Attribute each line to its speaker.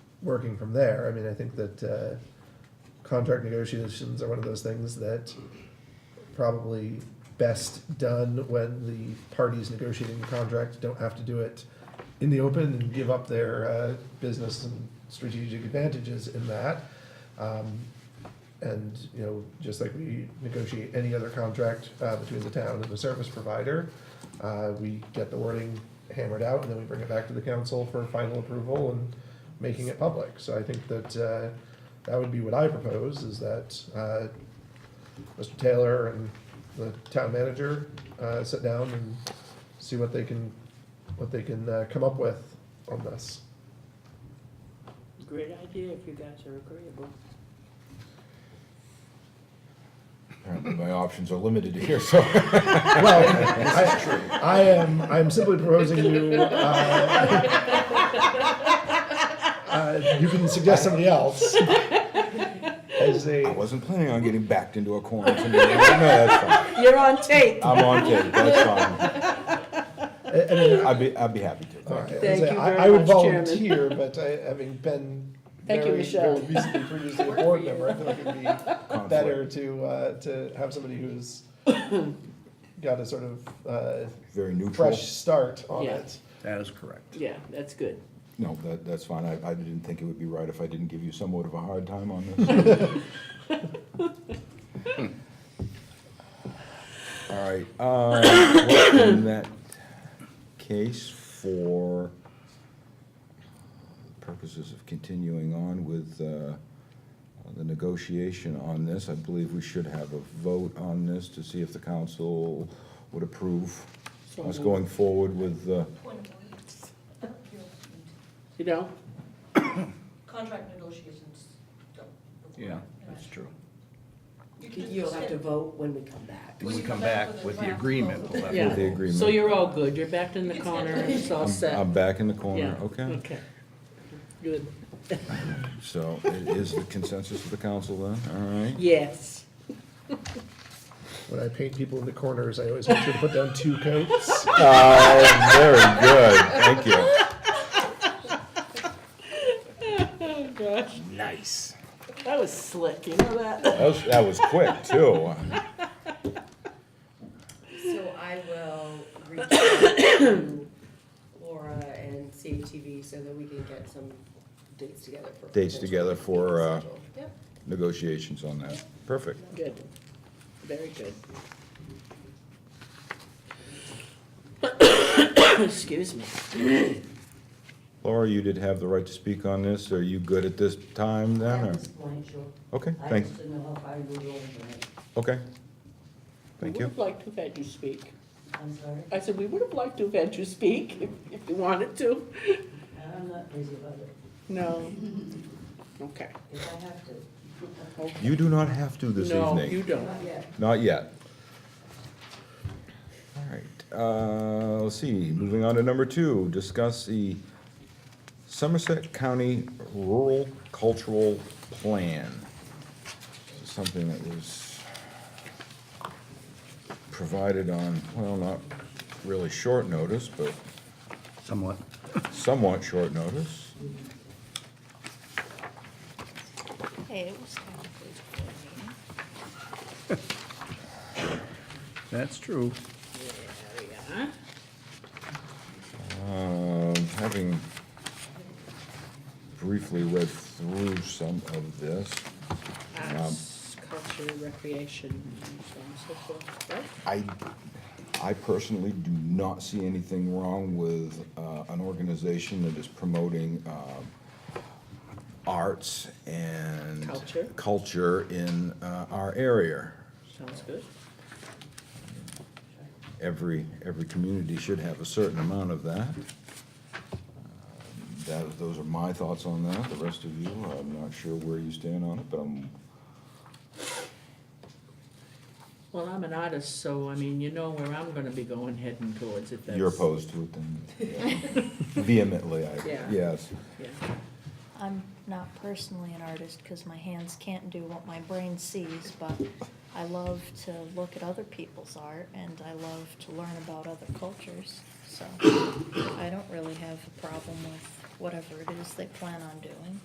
Speaker 1: working from there, I mean, I think that, uh, contract negotiations are one of those things that probably best done when the parties negotiating the contract don't have to do it in the open and give up their, uh, business and strategic advantages in that. Um, and, you know, just like we negotiate any other contract, uh, between the town and the service provider, uh, we get the wording hammered out, and then we bring it back to the council for final approval and making it public. So I think that, uh, that would be what I propose, is that, uh, Mr. Taylor and the town manager, uh, sit down and see what they can, what they can, uh, come up with on this.
Speaker 2: Great idea if you guys are agreeable.
Speaker 3: Apparently my options are limited here, so.
Speaker 1: Well, I, I am, I am simply proposing you, uh, uh, you can suggest somebody else. As a,
Speaker 3: I wasn't planning on getting backed into a corner tonight. No, that's fine.
Speaker 2: You're on tape.
Speaker 3: I'm on tape, that's
Speaker 1: I I mean,
Speaker 3: fine. I'd be, I'd be happy to.
Speaker 1: all right,
Speaker 3: Thank you.
Speaker 1: as
Speaker 2: Thank
Speaker 1: a-
Speaker 2: you
Speaker 1: I,
Speaker 2: very
Speaker 1: I would
Speaker 2: much, Chairman.
Speaker 1: volunteer, but I, having been
Speaker 2: Thank you,
Speaker 1: very,
Speaker 2: Michelle.
Speaker 1: very recently previously a board member, I feel like it'd be better to, uh, to have somebody who's got a sort of, uh,
Speaker 3: Very neutral.
Speaker 1: fresh start on
Speaker 2: Yeah.
Speaker 1: it.
Speaker 4: That is correct.
Speaker 2: Yeah, that's good.
Speaker 3: No, that, that's fine. I, I didn't think it would be right if I didn't give you somewhat of a hard time on this. All right, uh, what in that case for purposes of continuing on with, uh, the negotiation on this, I believe we should have a vote on this to see if the council would approve
Speaker 2: So
Speaker 3: us
Speaker 2: moved.
Speaker 3: going forward with, uh,
Speaker 2: You know,
Speaker 5: Contract negotiations don't.
Speaker 4: Yeah, that's true.
Speaker 2: you'll have to vote when we come back.
Speaker 4: And we come back with the agreement. we'll have to
Speaker 2: Yeah.
Speaker 3: the
Speaker 4: vote.
Speaker 3: agreement.
Speaker 2: So you're all good, you're back in the corner, it's all set.
Speaker 3: I'm back in the corner,
Speaker 2: Yeah,
Speaker 3: okay.
Speaker 2: Okay. Good,
Speaker 3: So i- is the consensus of the council then, all right?
Speaker 2: yes.
Speaker 1: When I paint people in the corners, I always make sure to put down two coats.
Speaker 3: Oh, very good, thank you.
Speaker 2: Oh, gosh,
Speaker 4: Nice.
Speaker 2: that was slick, you know that?
Speaker 3: That was, that was quick, too.
Speaker 6: So I will reach out to Laura and CATV so that we can get some dates together for.
Speaker 3: Dates together for, uh,
Speaker 6: potential meeting schedule. Yep.
Speaker 3: Negotiations on that, perfect.
Speaker 2: Good, very good. Excuse me.
Speaker 3: Laura, you did have the right to speak on this, are you good at this time then, or?
Speaker 7: At this point, sure.
Speaker 3: Okay,
Speaker 7: I
Speaker 3: thanks,
Speaker 7: just didn't know how far you were going tonight.
Speaker 3: okay. Thank
Speaker 2: We
Speaker 3: you.
Speaker 2: would have liked to have had you speak.
Speaker 7: I'm sorry,
Speaker 2: I said, we would have liked to have had you speak if, if you wanted to.
Speaker 7: I'm not busy about it,
Speaker 2: No. Okay.
Speaker 7: if I have to.
Speaker 3: You do not have to this evening.
Speaker 2: No, you don't.
Speaker 7: Not yet.
Speaker 3: Not yet. All right, uh, let's see, moving on to number two, discuss the Somerset County Rural Cultural Plan. This is Something that was provided on, well, not really short notice, but
Speaker 4: Somewhat.
Speaker 3: somewhat short notice.
Speaker 5: Hey, it was technically before the meeting.
Speaker 4: That's true.
Speaker 2: Yeah.
Speaker 3: Um, Having briefly read through some of this, Um,
Speaker 2: Arts, culture, recreation, and so on and so forth, right?
Speaker 3: I, I personally do not see anything wrong with uh, an organization that is promoting um, arts and.
Speaker 2: Culture.
Speaker 3: culture in uh, our area.
Speaker 2: Sounds good.
Speaker 3: Every, every community should have a certain amount of that. Uh, That, those are my thoughts on that. The rest of you, I'm not sure where you stand on it, but I'm,
Speaker 2: Well, I'm an artist, so I mean, you know where I'm gonna be going heading towards if that's.
Speaker 3: you're opposed to it then. yeah. Vehemently, I,
Speaker 2: Yeah.
Speaker 3: yes.
Speaker 2: Yeah.
Speaker 5: I'm not personally an artist because my hands can't do what my brain sees, but I love to look at other people's art and I love to learn about other cultures. So I don't really have a problem with whatever it is they plan on doing.